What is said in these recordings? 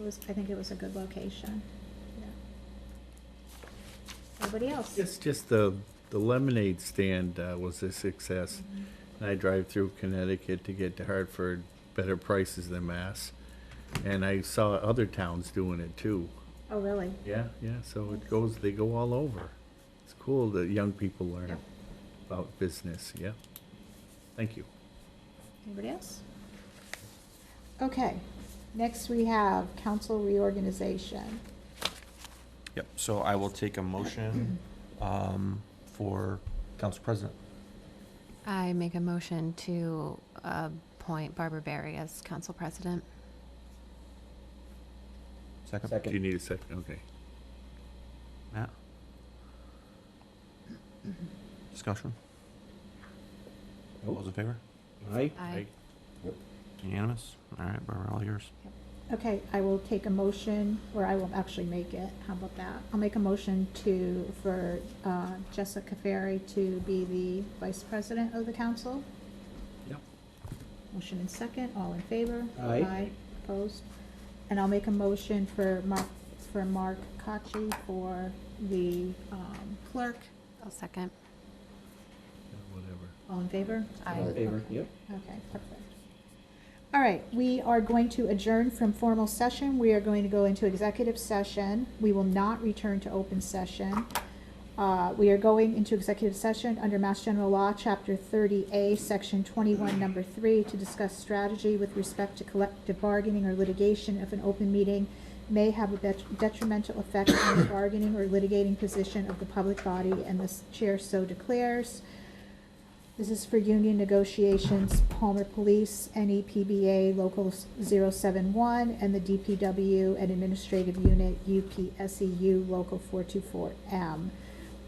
It was, I think it was a good location. Yeah. Anybody else? It's just the, the lemonade stand uh, was a success. And I drive through Connecticut to get to Hartford, better prices than Mass. And I saw other towns doing it too. Oh, really? Yeah, yeah, so it goes, they go all over. It's cool that young people learn Yeah. about business, yeah. Thank you. Anybody else? Okay, next we have council reorganization. Yep, so I will take a motion um, for council president. I make a motion to appoint Barbara Berry as council president. Second? Do you need a second? Okay. Matt? Discussion? All those in favor? Aye. Aye. Unanimous? All right, Barbara, all yours. Okay, I will take a motion, or I will actually make it, how about that? I'll make a motion to, for uh, Jessica Ferry to be the vice president of the council. Yep. Motion and second, all in favor? Aye. opposed? And I'll make a motion for Mark, for Mark Kochi for the um, clerk, I'll second. Whatever. all in favor? All in favor? Yep. Okay, perfect. All right, we are going to adjourn from formal session. We are going to go into executive session. We will not return to open session. Uh, We are going into executive session under Mass General Law, Chapter 30A, Section 21, Number 3, to discuss strategy with respect to collective bargaining or litigation if an open meeting may have a bet- detrimental effect on the bargaining or litigating position of the public body, and the s- chair so declares. This is for union negotiations, Palmer Police, E NEPBA Local 071, and the DPW and Administrative Unit, UPSEU E Local 424M.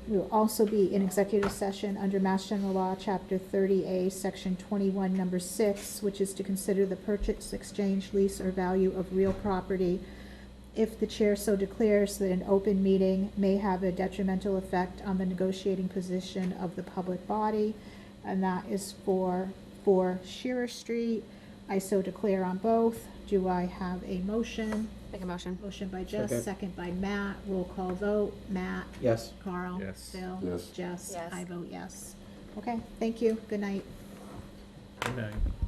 We will also be in executive session under Mass General Law, Chapter 30A, Section 21, Number 6, which is to consider the purchase, exchange, lease, or value of real property if the chair so declares that an open meeting may have a detrimental effect on the negotiating position of the public body, and that is for, for Shearer Street. I so declare on both. Do I have a motion? Make a motion. Motion by Jess, Second. second by Matt. Roll call vote. Matt? Yes. Carl? Yes. Bill? Yes. Jess? Yes. I vote yes. Okay, thank you. Good night. Good night.